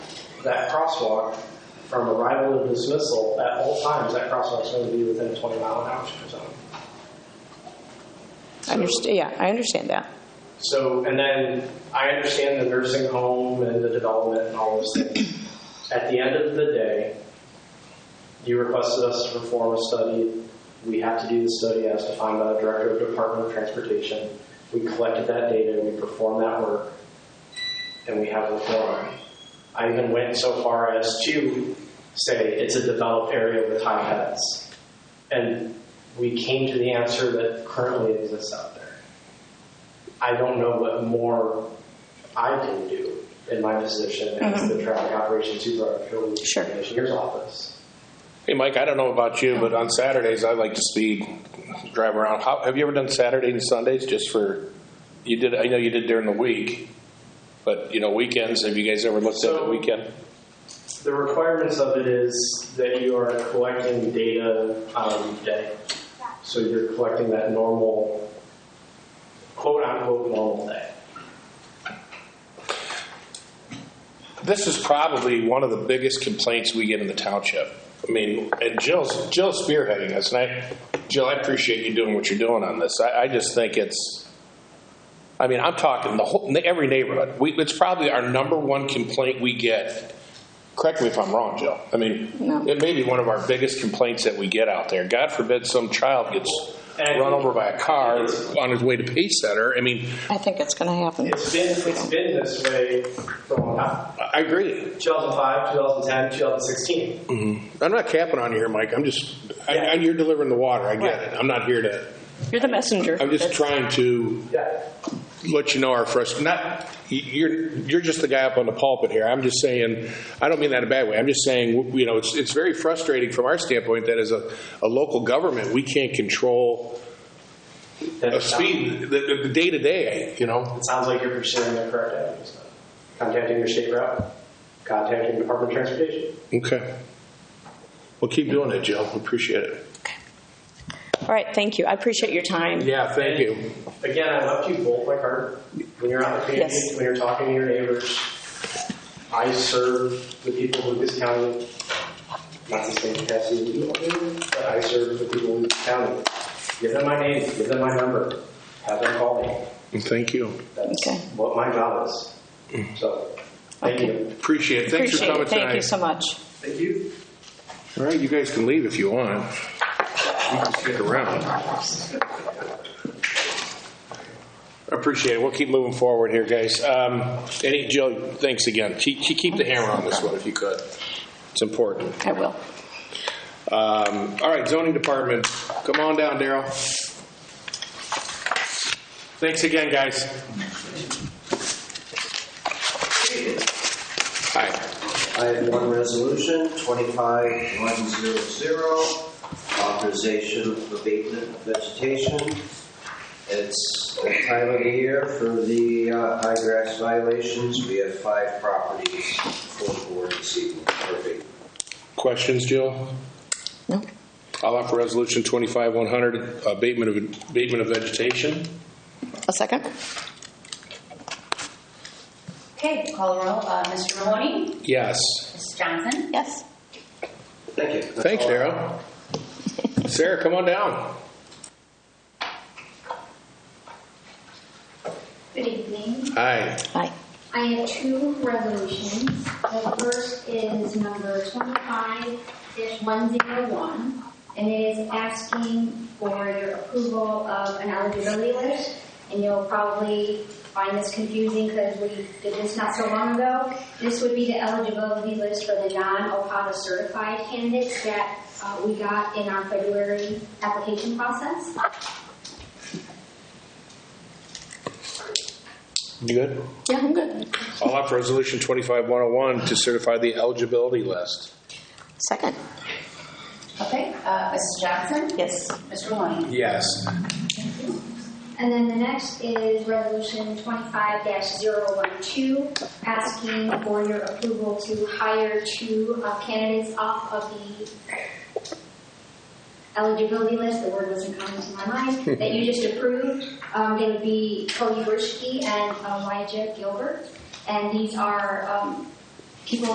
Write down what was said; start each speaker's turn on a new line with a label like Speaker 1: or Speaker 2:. Speaker 1: that crosswalk from arrival to dismissal, at all times, that crosswalk's going to be within a 20 mile an hour zone.
Speaker 2: I understand, yeah, I understand that.
Speaker 1: So, and then I understand the nursing home and the development and all those things. At the end of the day, you requested us to perform a study. We have to do the study as defined by the Director of Department of Transportation. We collected that data, we performed that work, and we have a forum. I even went so far as to say it's a developed area with high heads. And we came to the answer that currently exists out there. I don't know what more I can do in my position as the traffic operations supervisor of the
Speaker 2: Sure.
Speaker 1: engineer's office.
Speaker 3: Hey, Mike, I don't know about you, but on Saturdays, I like to speed, drive around. How, have you ever done Saturday and Sundays just for, you did, I know you did during the week, but, you know, weekends, have you guys ever looked at
Speaker 1: So-
Speaker 3: the weekend?
Speaker 1: The requirements of it is that you are collecting data on a weekday. So you're collecting that normal, quote unquote, normal day.
Speaker 3: This is probably one of the biggest complaints we get in the township. I mean, and Jill's, Jill's spearheading this, and I, Jill, I appreciate you doing what you're doing on this. I, I just think it's, I mean, I'm talking the whole, every neighborhood. We, it's probably our number one complaint we get. Correct me if I'm wrong, Jill. I mean,
Speaker 2: No.
Speaker 3: it may be one of our biggest complaints that we get out there. God forbid some child gets
Speaker 1: And I
Speaker 3: run
Speaker 1: think-
Speaker 3: over by a car on his way to Pay Center. I mean,
Speaker 2: I think it's going to happen.
Speaker 1: It's been, it's been this way for a long time.
Speaker 3: I I agree.
Speaker 1: 2005, 2010, 2016.
Speaker 3: I'm not capping on you here, Mike. I'm just, I,
Speaker 1: Yeah.
Speaker 3: I, you're delivering the water. I get it. I'm not here to,
Speaker 2: You're the messenger.
Speaker 3: I'm just trying to
Speaker 1: Yeah.
Speaker 3: let you know our frustration. Not, you're, you're just the guy up on the pulpit here. I'm just saying, I don't mean that in a bad way. I'm just saying, you know, it's, it's very frustrating from our standpoint that as a, a local government, we can't control a
Speaker 1: That-
Speaker 3: speed, the- the, the day to day, you know?
Speaker 1: It sounds like you're pursuing the correct avenues. Contacting your state rep, contacting Department of Transportation.
Speaker 3: Okay. Well, keep doing it, Jill. Appreciate it.
Speaker 2: All right, thank you. I appreciate your time.
Speaker 3: Yeah, thank you.
Speaker 1: Again, I left you both like hard. When you're out in the community,
Speaker 2: Yes.
Speaker 1: when you're talking to your neighbors, I serve the people of Lucas County. Not the same capacity that you all do, but I serve the people of Lucas County. Give them my name, give them my number, have them call me.
Speaker 3: Thank you.
Speaker 1: That's
Speaker 2: Okay.
Speaker 1: what my job is. So, thank
Speaker 2: Okay.
Speaker 1: you.
Speaker 3: Appreciate it. Thanks for
Speaker 2: Appreciate
Speaker 3: coming
Speaker 2: it.
Speaker 3: tonight.
Speaker 2: Thank you so much.
Speaker 1: Thank you.
Speaker 3: All right, you guys can leave if you want. You can stick around. Appreciate it. We'll keep moving forward here, guys. Um, Any, Jill, thanks again. Keep, keep- keep the hammer on this one if you could. It's important.
Speaker 2: I will.
Speaker 3: Um, All right, zoning department, come on down, Daryl. Thanks again, guys. Hi.
Speaker 4: I have one resolution, 25100, authorization of abatement of vegetation. It's the time of the year for the uh, high grass violations. We have five properties for the board this evening. Perfect.
Speaker 3: Questions, Jill?
Speaker 2: No.
Speaker 3: I'll offer Resolution 25-100, abatement of, abatement of vegetation.
Speaker 2: A second?
Speaker 5: Okay, call the roll. Uh, Mr. Maloney?
Speaker 3: Yes.
Speaker 5: Mrs. Johnson?
Speaker 2: Yes.
Speaker 4: Thank you. That's
Speaker 3: Thanks,
Speaker 4: all I have.
Speaker 3: Darrell. Sarah, come on down.
Speaker 6: Good evening.
Speaker 3: Hi.
Speaker 2: Aye.
Speaker 6: I have two resolutions. The first is number twenty-five one zero one, and it is asking for your approval of an eligibility list. And you'll probably find this confusing because we did this not so long ago. This would be the eligibility list for the non-OPATA certified candidates that uh, we got in our February application process.
Speaker 3: You good?
Speaker 2: Yeah, I'm good.
Speaker 3: I'll offer Resolution 25-101 to certify the eligibility list.
Speaker 2: Second?
Speaker 5: Okay, uh, Mrs. Johnson?
Speaker 2: Yes.
Speaker 5: Mr. Maloney?
Speaker 3: Yes.
Speaker 6: And then the next is Resolution 25-012, asking for your approval to hire two uh, candidates off of the eligibility list, the word wasn't coming to my mind, that you just approved. Um, They would be uh, Cody Burschke and Elijah Gilbert. And these are um, people